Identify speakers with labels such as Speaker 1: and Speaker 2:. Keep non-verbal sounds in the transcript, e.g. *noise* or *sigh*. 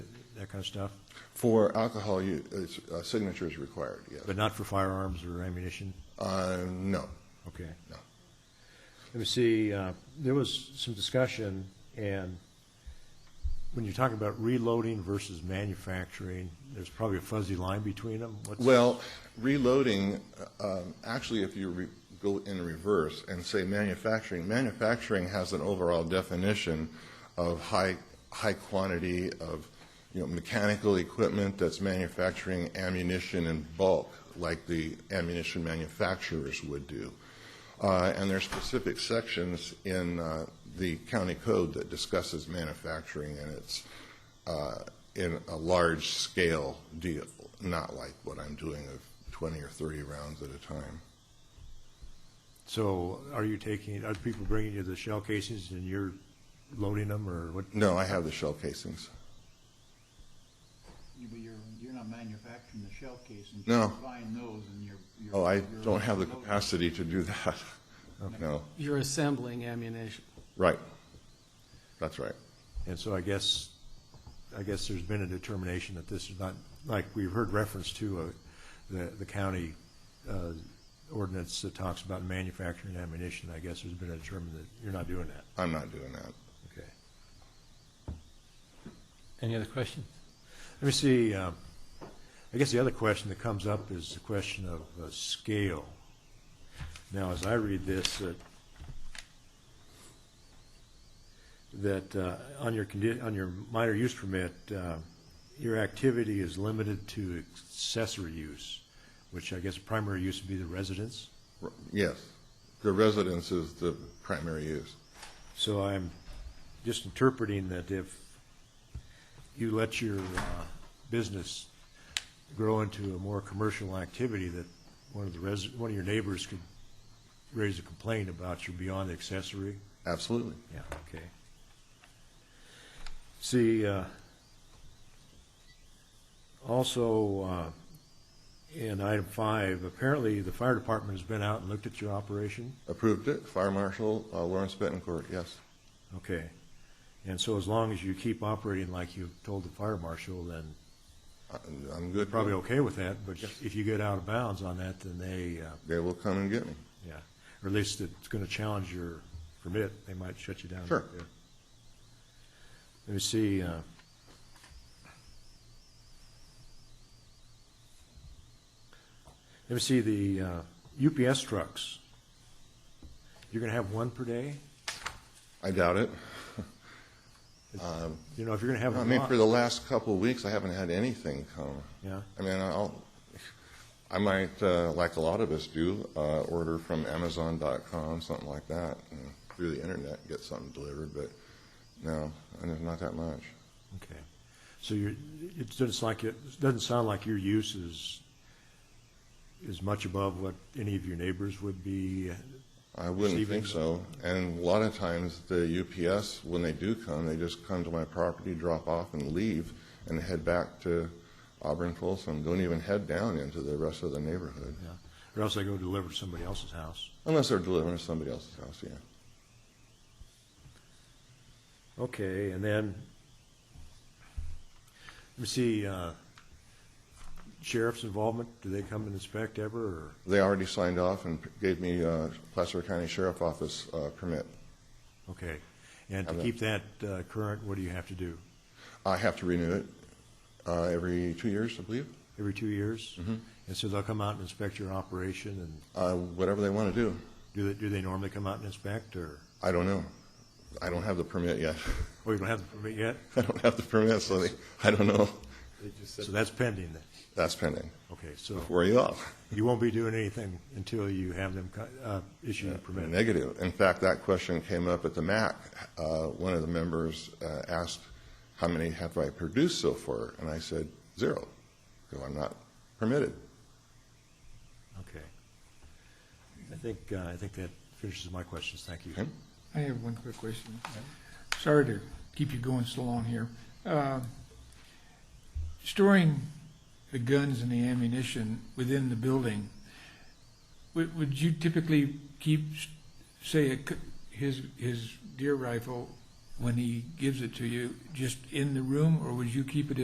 Speaker 1: kind of stuff,
Speaker 2: For alcohol, you, it's, a signature is required, yes.
Speaker 1: but not for firearms or ammunition?
Speaker 2: Uh, no,
Speaker 1: Okay.
Speaker 2: no.
Speaker 1: Let me see, uh, there was some discussion, and when you're talking about reloading versus manufacturing, there's probably a fuzzy line between them. What's-
Speaker 2: Well, reloading, uh, um, actually, if you re- go in reverse and say manufacturing, manufacturing has an overall definition of high, high quantity of, you know, mechanical equipment that's manufacturing ammunition in bulk, like the ammunition manufacturers would do. Uh, And there are specific sections in uh, the county code that discusses manufacturing and its, uh, in a large-scale deal, not like what I'm doing of 20 or 30 rounds at a time.
Speaker 1: So are you taking, are people bringing you the shell casings and you're loading them, or what?
Speaker 2: No, I have the shell casings.
Speaker 3: You- But you're, you're not manufacturing the shell casings.
Speaker 2: No.
Speaker 3: You're buying those and you're. you're-
Speaker 2: Oh, I
Speaker 3: you're
Speaker 2: don't have the
Speaker 3: loading.
Speaker 2: capacity to do that. *laughs* No,
Speaker 4: You're assembling ammunition.
Speaker 2: right. That's right.
Speaker 1: And so I guess, I guess there's been a determination that this is not, like, we've heard reference to uh, the, the county uh, ordinance that talks about manufacturing ammunition. I guess there's been a determination that you're not doing that.
Speaker 2: I'm not doing that.
Speaker 1: Okay.
Speaker 5: Any other questions?
Speaker 1: Let me see, um, I guess the other question that comes up is the question of uh, scale. Now, as I read this, uh, that- that uh, on your, condi- on your minor use permit, uh, your activity is limited to accessory use, which I guess primary use would be the residence.
Speaker 2: R- Yes, the residence is the primary use.
Speaker 1: So I'm just interpreting that if you let your uh, business grow into a more commercial activity, that one of the res, one of your neighbors could raise a complaint about your beyond accessory?
Speaker 2: Absolutely.
Speaker 1: Yeah, okay. See, uh, also, uh, in item five, apparently the fire department has been out and looked at your operation?
Speaker 2: Approved it, Fire Marshal uh, Lawrence Betancourt, yes.
Speaker 1: Okay. And so as long as you keep operating like you told the fire marshal, then
Speaker 2: I- I'm good.
Speaker 1: probably okay with that, but if you get out of bounds on that, then they, uh,
Speaker 2: They will come and get me.
Speaker 1: yeah, or at least it's gonna challenge your permit, they might shut you down.
Speaker 2: Sure.
Speaker 1: Yeah. Let me see, uh, let me see the, uh, UPS trucks. You're gonna have one per day?
Speaker 2: I doubt it.
Speaker 1: You know, if you're gonna have a
Speaker 2: I
Speaker 1: lot.
Speaker 2: mean, for the last couple of weeks, I haven't had anything come.
Speaker 1: Yeah.
Speaker 2: I mean, I'll, I might, uh, like a lot of us do, uh, order from Amazon.com, something like that, and through the internet, get something delivered, but no, and there's not that much.
Speaker 1: Okay. So you're, it doesn't like, it doesn't sound like your use is, is much above what any of your neighbors would be.
Speaker 2: I wouldn't
Speaker 1: Receiving-
Speaker 2: think so. And a lot of times, the UPS, when they do come, they just come to my property, drop off, and leave, and head back to Auburn Folsom. Don't even head down into the rest of the neighborhood,
Speaker 1: Yeah. Or else they go deliver to somebody else's house.
Speaker 2: unless they're delivering to somebody else's house, yeah.
Speaker 1: Okay, and then, let me see, uh, sheriff's involvement, do they come and inspect ever, or?
Speaker 2: They already signed off and gave me uh, Placer County Sheriff Office uh, permit.
Speaker 1: Okay. And to
Speaker 2: Haven't.
Speaker 1: keep that uh, current, what do you have to do?
Speaker 2: I have to renew it uh, every two years, I believe,
Speaker 1: Every two years? Mm-hmm. And so they'll come out and inspect your operation, and
Speaker 2: Uh, whatever they want to do.
Speaker 1: do they, do they normally come out and inspect, or?
Speaker 2: I don't know. I don't have the permit yet. *laughs*
Speaker 1: Oh, you don't have the permit yet?
Speaker 2: I don't have the permit, so they- I don't know.
Speaker 1: So that's pending then?
Speaker 2: That's pending.
Speaker 1: Okay, so
Speaker 2: Where are you off?
Speaker 1: you won't be doing anything until you have them co- uh, issue the permit?
Speaker 2: Negative. In fact, that question came up at the MAC. Uh, One of the members uh, asked, how many have I produced so far? And I said, zero, because I'm not permitted.
Speaker 1: Okay. I think, uh, I think that finishes my questions. Thank you.
Speaker 2: Okay.
Speaker 6: I have one quick question. Sorry to keep you going so long here. Uh, Storing the guns and the ammunition within the building, would, would you typically keep, say, a c- his, his deer rifle, when he gives it to you, just in the room, or would you keep it